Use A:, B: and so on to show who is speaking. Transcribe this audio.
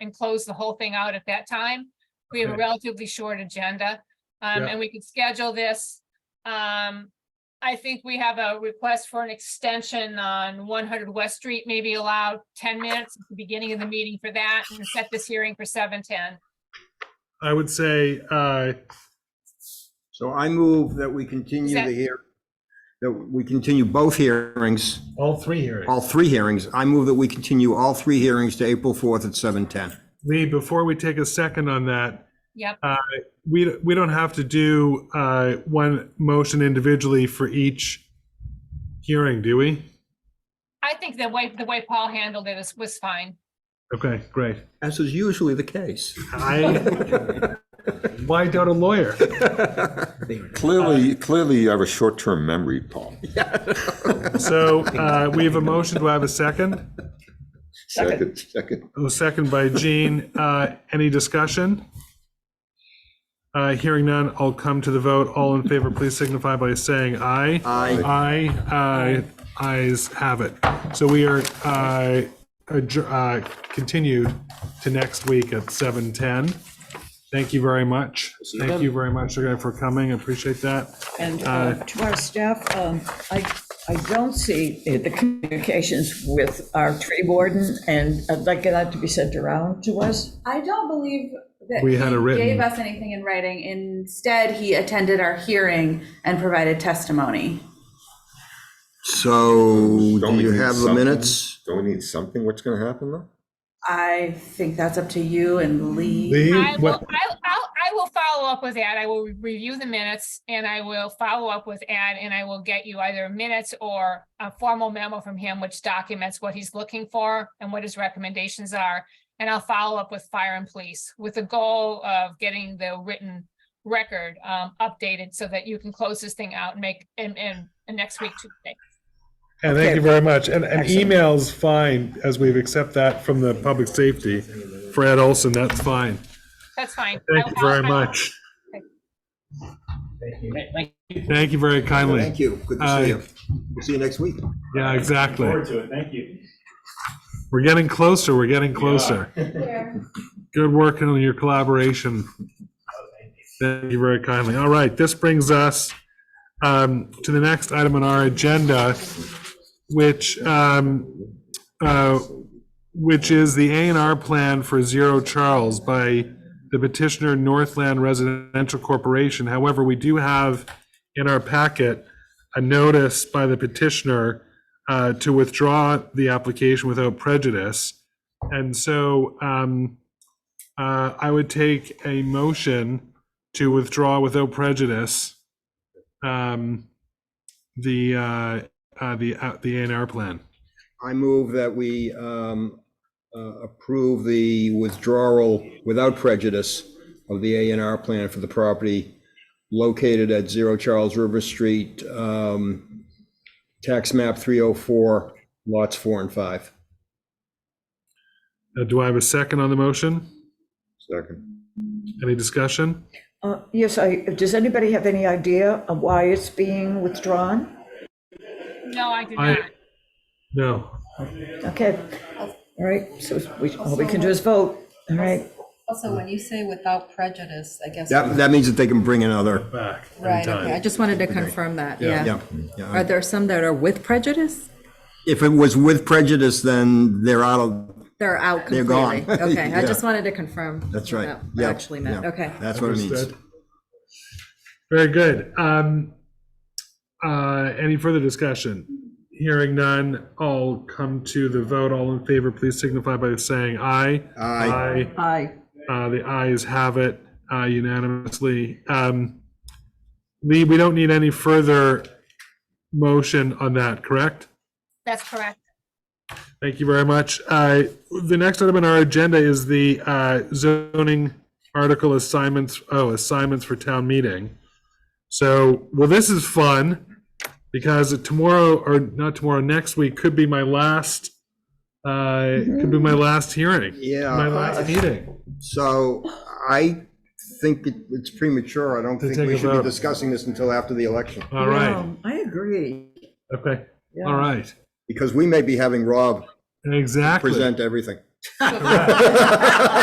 A: and close the whole thing out at that time. We have a
B: Okay.
A: relatively short agenda, um,
B: Yeah.
A: and we could schedule this. Um, I think we have a request for an extension on one hundred West Street, maybe allow ten minutes at the beginning of the meeting for that and set this hearing for seven ten.
B: I would say, uh,
C: So I move that we continue
A: Is that-
C: the hear, that we continue both hearings,
B: all three hearings.
C: all three hearings. I move that we continue all three hearings to April 4th at 7:10.
B: Lee, before we take a second on that,
A: Yep,
B: we, we don't have to do, uh, one motion individually for each hearing, do we?
A: I think the way, the way Paul handled it is, was fine.
B: Okay, great.
C: As is usually the case.
B: I, why doubt a lawyer?
D: Clearly, clearly you have a short-term memory, Paul.
B: So, uh, we have a motion. Do I have a second?
D: Second, second.
B: A second by Gene. Uh, any discussion? Uh, hearing none, I'll come to the vote. All in favor, please signify by saying aye.
C: Aye.
B: Aye, aye, ayes have it. So we are, uh, adjour- uh, continued to next week at 7:10. Thank you very much. Thank you very much again for coming. I Appreciate that.
E: And uh, to our staff, um, I, I don't see the communications with our tree warden, and I'd like that to be sent around to us.
F: I don't believe that
B: We had
F: he
B: it written.
F: gave us anything in writing. Instead, he attended our hearing and provided testimony.
C: So
D: Don't
C: do
D: we
C: you
D: need
C: have the
D: something?
C: minutes?
D: Don't we need something? What's gonna happen though?
F: I think that's up to you and Lee.
A: I will, I'll, I'll, I will follow up with that. I will review the minutes and I will follow up with Ed and I will get you either minutes or a formal memo from him which documents what he's looking for and what his recommendations are. And I'll follow up with fire and police with the goal of getting the written record um updated so that you can close this thing out and make and and and next week Tuesday.
B: And thank
E: Okay.
B: you very much. And, and
E: Excellent.
B: email's fine, as we've accept that from the public safety. For Ed Olson, that's fine.
A: That's fine.
B: Thank
A: I-
B: you very
A: I'll- I'll-
B: much. Thank you very kindly.
C: Thank you. Good to
B: Aye.
C: see you. We'll See you next week.
B: Yeah, exactly.
G: Forward to it, thank you.
B: We're getting closer, we're getting closer. Good work on your collaboration.
G: Oh,
B: Thank you very kindly. All right, this brings us um, to the next item on our agenda, which, um, uh, which is the A and R plan for Zero Charles by the petitioner Northland Residential Corporation. However, we do have in our packet a notice by the petitioner uh, to withdraw the application without prejudice. And so um, uh, I would take a motion to withdraw without prejudice um, the, uh, uh, the, uh, the A and R plan.
C: I move that we um, uh, approve the withdrawal without prejudice of the A and R plan for the property located at Zero Charles River Street, um, tax map 304, lots four and five.
B: Uh, Do I have a second on the motion?
D: Second.
B: Any discussion?
E: Uh, Yes, I, does anybody have any idea of why it's being withdrawn?
A: No, I do
B: I-
A: not.
B: No.
E: Okay, all right, so we, all we can do is vote, all right?
H: Also, when you say without prejudice, I guess,
C: That, that means that they can bring another,
B: Back.
H: right, okay, I just wanted to confirm that, yeah.
C: yeah. yeah.
H: Are there some that are with prejudice?
C: If it was with prejudice, then they're out of,
H: They're out
C: They're gone.
H: completely? Okay, I
C: Yeah.
H: just wanted to confirm.
C: that's right.
H: what that
C: Yeah,
H: Actually meant,
C: yeah.
H: okay.
C: That's what it means.
B: Understood. Very good. Um, uh, any further discussion? Hearing none, I'll come to the vote. All in favor, please signify by saying aye.
C: Aye.
E: Aye.
B: Uh, the ayes have it uh, unanimously. Um, Lee, we don't need any further motion on that, correct?
A: That's correct.
B: Thank you very much. Uh, The next item on our agenda is the uh, zoning article assignments, oh, assignments for town meeting. So, well, this is fun because tomorrow, or not tomorrow, next week could be my last, uh, could be my last hearing,
C: Yeah.
B: my last meeting.
C: So I think it- it's premature. I don't think
B: take a
C: we should be
B: vote.
C: discussing this until after the election,
B: All right,
E: No, I agree.
B: okay,
E: Yeah.
B: all right,
C: because we may be having Rob
B: exactly.
C: present everything. to-